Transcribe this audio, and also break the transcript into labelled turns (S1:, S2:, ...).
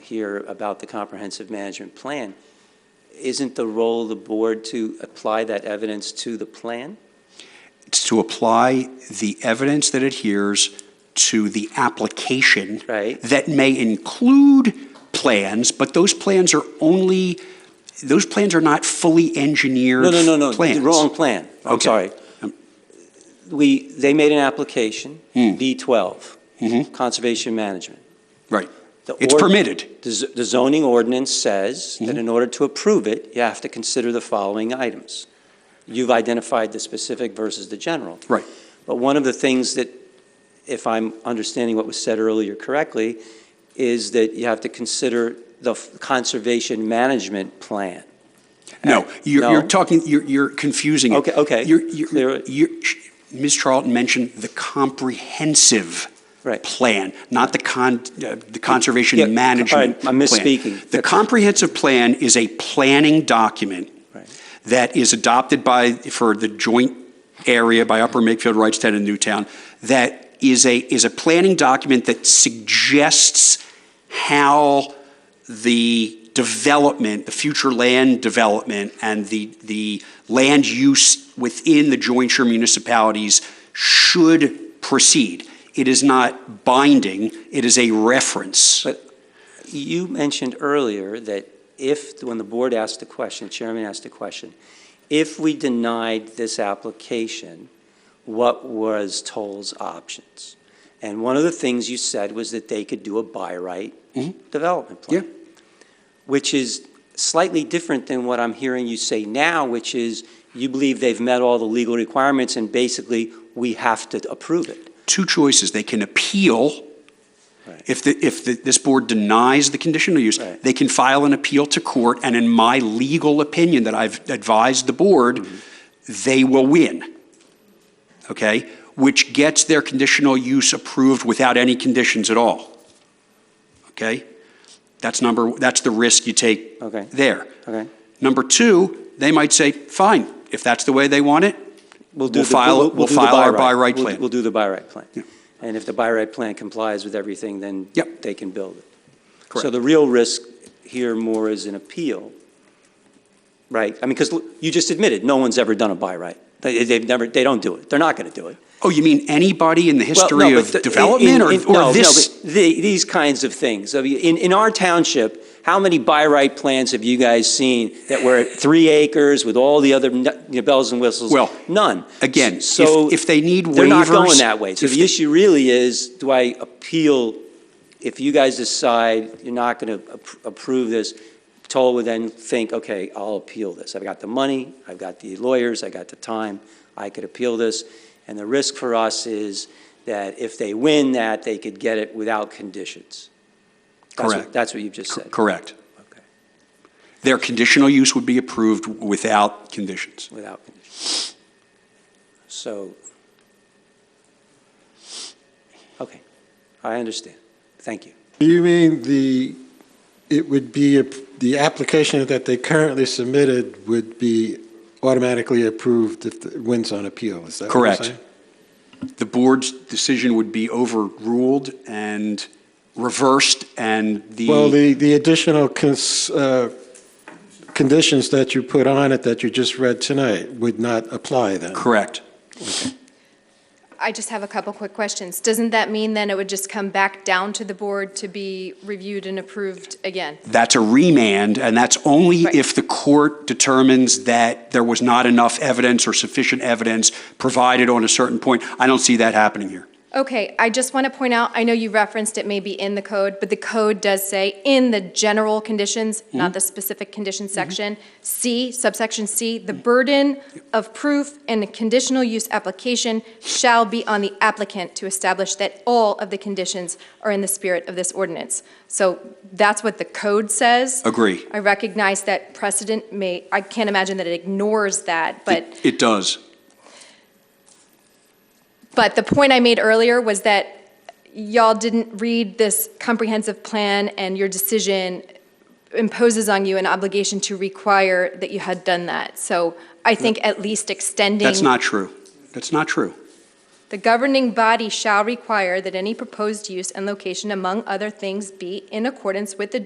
S1: here about the comprehensive management plan, isn't the role of the board to apply that evidence to the plan?
S2: It's to apply the evidence that adheres to the application
S1: Right.
S2: that may include plans, but those plans are only, those plans are not fully engineered
S1: No, no, no, no,
S2: plans.
S1: the wrong plan. I'm
S2: Okay.
S1: sorry.
S2: Um,
S1: We, they made an application,
S2: Hmm.
S1: B12,
S2: Mhm.
S1: conservation management.
S2: Right.
S1: The
S2: It's
S1: ord-
S2: permitted.
S1: The z- the zoning ordinance says that
S2: Mhm.
S1: in order to approve it, you have to consider the following items. You've identified the specific versus the general.
S2: Right.
S1: But one of the things that, if I'm understanding what was said earlier correctly, is that you have to consider the f- conservation management plan.
S2: No, you're,
S1: No.
S2: you're talking, you're, you're confusing it.
S1: Okay, okay.
S2: You're, you're-
S1: Clear it.
S2: you're, Ms. Charlton mentioned the comprehensive
S1: Right.
S2: plan, not the con, uh, the
S1: Yeah,
S2: conservation management.
S1: all right, I'm
S2: plan.
S1: misspeaking.
S2: The comprehensive plan is a planning document
S1: Right.
S2: that is adopted by, for the joint area by Upper Makefield, Wrightstown, and Newtown, that is a, is a planning document that suggests how the development, the future land development, and the, the land use within the jointure municipalities should proceed. It is not binding, it is a reference.
S1: But- You mentioned earlier that if, when the board asked the question, chairman asked the question, if we denied this application, what was Toll's options? And one of the things you said was that they could do a by right
S2: Mhm.
S1: development plan. Which is slightly different than what I'm hearing you say now, which is you believe they've met all the legal requirements and basically we have to approve it.
S2: Two choices, they can appeal.
S1: Right.
S2: If the, if the, this board denies the conditional use,
S1: Right.
S2: they can file an appeal to court, and in my legal opinion that I've advised the board,
S1: Mm-hmm.
S2: they will win. Okay? Which gets their conditional use approved without any conditions at all. Okay? That's number, that's the risk you take
S1: Okay,
S2: there.
S1: okay.
S2: Number two, they might say, fine, if that's the way they want it,
S1: do
S2: We'll
S1: the-
S2: file- we'll
S1: do the
S2: file our by right
S1: We'll-
S2: plan.
S1: We'll do the by right plan.
S2: Yeah.
S1: And if the by right plan complies with everything, then
S2: Yep.
S1: they can build it. So
S2: Correct.
S1: the real risk here more is an appeal, right? I mean, because you just admitted, no one's ever done a by right. They, they've never, they don't do it. They're not going to do it.
S2: oh, you mean anybody in the
S1: Well, no,
S2: history
S1: but
S2: of
S1: the- in-
S2: development
S1: in-
S2: or,
S1: no, no,
S2: or this?
S1: but the- These kinds of things. I mean, in, in our township, how many by right plans have you guys seen that were three acres with all the other n- you know, bells and whistles?
S2: Well,
S1: None.
S2: Again, if,
S1: So-
S2: if they need waivers.
S1: They're not going that way. So
S2: if
S1: the
S2: they-
S1: issue really is, do I appeal, if you guys decide you're not going to approve this, Toll would then think, okay, I'll appeal this. I've got the money, I've got the lawyers, I got the time, I could appeal this. And the risk for us is that if they win that, they could get it without conditions. That's what-
S2: Correct.
S1: That's what you've just said.
S2: Correct.
S1: Okay,
S2: Their conditional use would be approved without conditions.
S1: Without conditions. So, okay, I understand. Thank you.
S3: You mean the, it would be, a- the application that they currently submitted would be automatically approved if it wins on appeal, is that what you're
S2: Correct.
S3: saying?
S2: The board's decision would be overruled and reversed, and
S3: Well,
S2: the,
S3: the, the additional cons, uh, conditions that you put on it that you just read tonight would not apply then?
S2: correct.
S4: I just have a couple quick questions. Doesn't that mean then it would just come back down to the board to be reviewed and approved again?
S2: That's a remand, and that's only
S4: Right.
S2: if the court determines that there was not enough evidence or sufficient evidence provided on a certain point. I don't see that happening here.
S4: Okay, I just want to point out, I know you referenced it may be in the code, but the code does say in the general conditions, not the specific condition section, C, subsection C, the burden of proof in a conditional use application shall be on the applicant to establish that all of the conditions are in the spirit of this ordinance. So that's what the code says.
S2: Agree.
S4: I recognize that precedent may, I can't imagine that it ignores that, but
S2: It- It does.
S4: But the point I made earlier was that y'all didn't read this comprehensive plan, and your decision imposes on you an obligation to require that you had done that. So I think at least extending.
S2: That's not true. That's not true.
S4: The governing body shall require that any proposed use and location, among other things, be in accordance with the